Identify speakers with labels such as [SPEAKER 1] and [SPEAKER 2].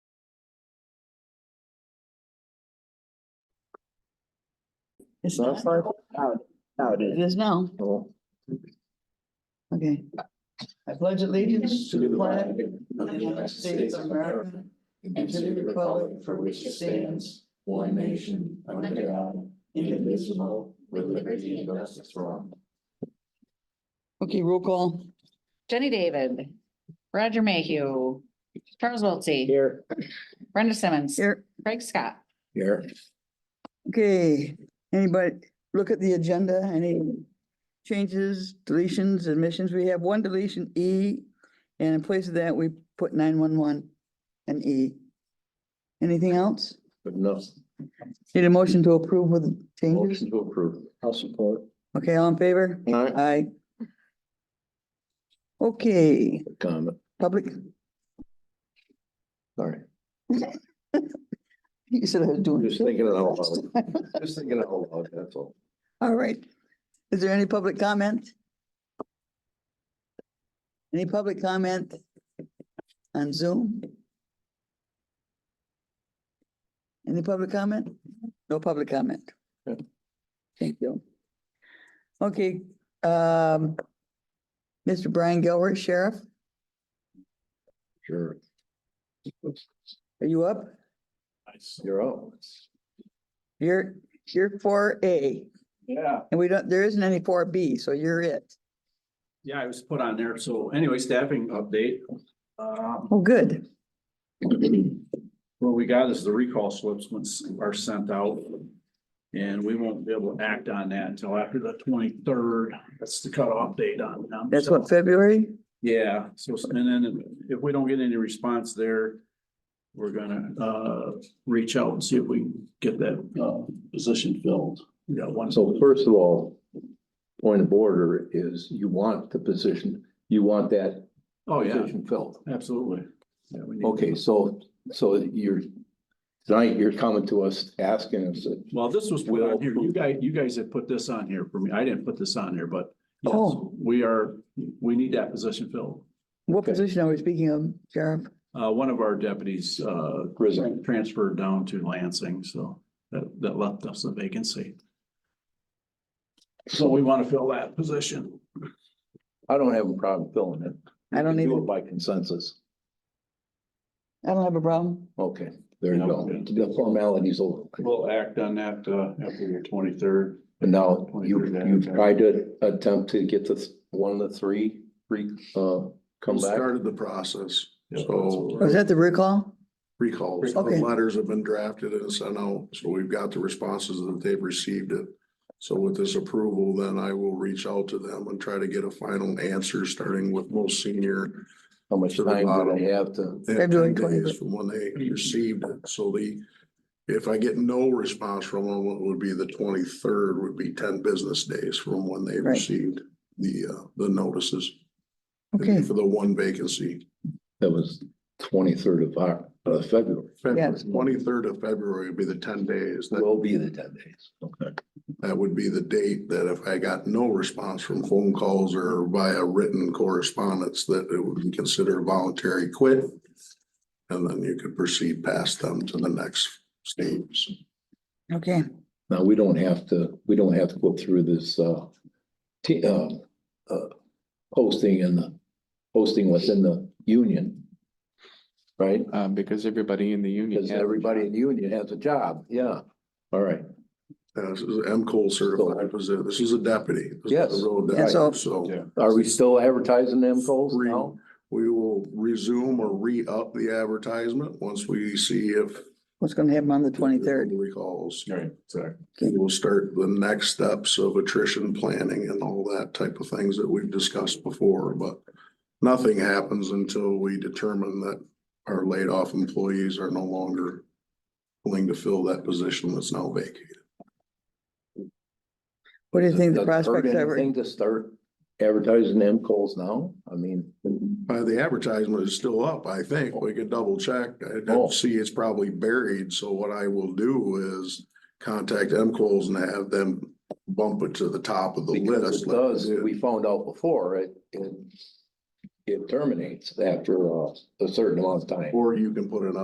[SPEAKER 1] It's
[SPEAKER 2] No,
[SPEAKER 1] not,
[SPEAKER 2] it's not. Now it- now it
[SPEAKER 1] it
[SPEAKER 2] is.
[SPEAKER 1] is now,
[SPEAKER 2] Well,
[SPEAKER 1] okay. I pledge allegiance to the flag of the United States of America
[SPEAKER 3] And
[SPEAKER 1] and
[SPEAKER 3] to the republic for which it stands, one nation, under God, indivisible, with liberty and justice for all.
[SPEAKER 1] Okay, roll call.
[SPEAKER 4] Jenny David, Roger Mayhew, Charles Wiltie,
[SPEAKER 2] Here.
[SPEAKER 4] Brenda Simmons,
[SPEAKER 1] Here,
[SPEAKER 4] Craig Scott.
[SPEAKER 3] Here.
[SPEAKER 1] okay, anybody look at the agenda, any changes, deletions, admissions? We have one deletion, E, and in place of that, we put nine one one and E. Anything else?
[SPEAKER 3] But no,
[SPEAKER 1] Need a motion to approve with changes?
[SPEAKER 3] motion to approve.
[SPEAKER 2] I'll support.
[SPEAKER 1] Okay, all in favor?
[SPEAKER 3] Aye.
[SPEAKER 1] Aye. Okay,
[SPEAKER 3] Comment,
[SPEAKER 1] public,
[SPEAKER 3] sorry.
[SPEAKER 1] you said I was doing.
[SPEAKER 3] Just thinking it out loud. Just thinking it out loud, that's all.
[SPEAKER 1] All right. Is there any public comment? Any public comment on Zoom? Any public comment? No public comment.
[SPEAKER 3] Yeah.
[SPEAKER 1] Thank you. Okay, um, Mr. Brian Gilbert, Sheriff,
[SPEAKER 3] Sure.
[SPEAKER 1] are you up?
[SPEAKER 3] You're out.
[SPEAKER 1] You're, you're four A
[SPEAKER 5] Yeah,
[SPEAKER 1] and we don't, there isn't any four B, so you're it.
[SPEAKER 5] yeah, I was put on there. So anyway, staffing update. Um,
[SPEAKER 1] Oh, good.
[SPEAKER 5] what we got is the recall slips once are sent out. And we won't be able to act on that until after the twenty-third. That's the cutoff date on them.
[SPEAKER 1] That's what, February?
[SPEAKER 5] Yeah, so s- and then if we don't get any response there, we're gonna uh reach out and see if we can get that uh position filled. We got one.
[SPEAKER 3] So first of all, point of order is you want the position, you want that
[SPEAKER 5] Oh, yeah,
[SPEAKER 3] position filled.
[SPEAKER 5] absolutely. Yeah, we need-
[SPEAKER 3] Okay, so, so you're, tonight you're coming to us asking us,
[SPEAKER 5] Well, this was put on here. You guys, you guys had put this on here for me. I didn't put this on here, but yes,
[SPEAKER 1] Oh.
[SPEAKER 5] we are, we need that position filled.
[SPEAKER 1] What
[SPEAKER 3] Okay.
[SPEAKER 1] position are we speaking of, Sheriff?
[SPEAKER 5] Uh, one of our deputies, uh,
[SPEAKER 3] Resigned.
[SPEAKER 5] transferred down to Lansing, so that, that left us a vacancy. So we want to fill that position.
[SPEAKER 3] I don't have a problem filling it.
[SPEAKER 1] I don't
[SPEAKER 3] You can do
[SPEAKER 1] either.
[SPEAKER 3] it By consensus.
[SPEAKER 1] I don't have a problem.
[SPEAKER 3] Okay, there you
[SPEAKER 5] Yeah.
[SPEAKER 3] go. The formality's over.
[SPEAKER 5] We'll act on that, uh, after your twenty-third.
[SPEAKER 3] And now you, you tried to attempt to get this one of the three, three, uh, come back.
[SPEAKER 6] Started the process,
[SPEAKER 1] Was
[SPEAKER 6] so
[SPEAKER 1] that the recall?
[SPEAKER 6] recalls, the
[SPEAKER 1] Okay.
[SPEAKER 6] letters have been drafted and sent out, so we've got the responses that they've received it. So with this approval, then I will reach out to them and try to get a final answer, starting with most senior.
[SPEAKER 3] How much
[SPEAKER 6] To the
[SPEAKER 3] time do
[SPEAKER 6] bottom.
[SPEAKER 3] they have to?
[SPEAKER 6] They have
[SPEAKER 1] February
[SPEAKER 6] 10 days
[SPEAKER 1] 23rd.
[SPEAKER 6] From when they received it, so the, if I get no response from them, it would be the twenty-third would be ten business days from when they
[SPEAKER 1] Right.
[SPEAKER 6] received the, uh, the notices. It'd be
[SPEAKER 1] Okay,
[SPEAKER 6] For the one vacancy,
[SPEAKER 3] That was twenty-third of, Oc- uh, February.
[SPEAKER 1] Yeah.
[SPEAKER 6] twenty-third of February would be the ten days. That
[SPEAKER 3] Will be the ten days. Okay.
[SPEAKER 6] That would be the date that if I got no response from phone calls or via written correspondence, that it would be considered voluntary quit. And then you could proceed past them to the next stage.
[SPEAKER 1] okay.
[SPEAKER 3] Now, we don't have to, we don't have to go through this, uh, t- uh, uh, posting in the, posting within the union. Right?
[SPEAKER 7] Um, because everybody in the union.
[SPEAKER 3] Because
[SPEAKER 7] has a
[SPEAKER 3] everybody
[SPEAKER 7] job.
[SPEAKER 3] in the union has a job. Yeah. All right.
[SPEAKER 6] Uh, This is M Cole certified position. This is a deputy. This is a
[SPEAKER 3] Yes.
[SPEAKER 6] road
[SPEAKER 1] Yeah, so-
[SPEAKER 6] deputy. So
[SPEAKER 3] Are we still advertising them polls now?
[SPEAKER 6] we will resume or re-up the advertisement once we see if.
[SPEAKER 1] What's gonna happen on the twenty-third?
[SPEAKER 6] Recalls.
[SPEAKER 5] Right, sorry.
[SPEAKER 6] We'll start the next steps of attrition planning and all that type of things that we've discussed before, but nothing happens until we determine that our laid off employees are no longer willing to fill that position that's now vacated.
[SPEAKER 1] What do you think
[SPEAKER 3] Does
[SPEAKER 1] the
[SPEAKER 3] it hurt
[SPEAKER 1] prospects ever?
[SPEAKER 3] Anything to start advertising them polls now? I mean,
[SPEAKER 6] Uh, the advertisement is still up, I think. We could double check. I
[SPEAKER 3] Oh.
[SPEAKER 6] don't see it's probably buried, so what I will do is contact M Coles and have them bump it to the top of the
[SPEAKER 3] because
[SPEAKER 6] list.
[SPEAKER 3] it
[SPEAKER 6] like they
[SPEAKER 3] does,
[SPEAKER 6] did.
[SPEAKER 3] we found out before, it, it, it terminates after uh, a certain amount of time.
[SPEAKER 6] Or you can put it on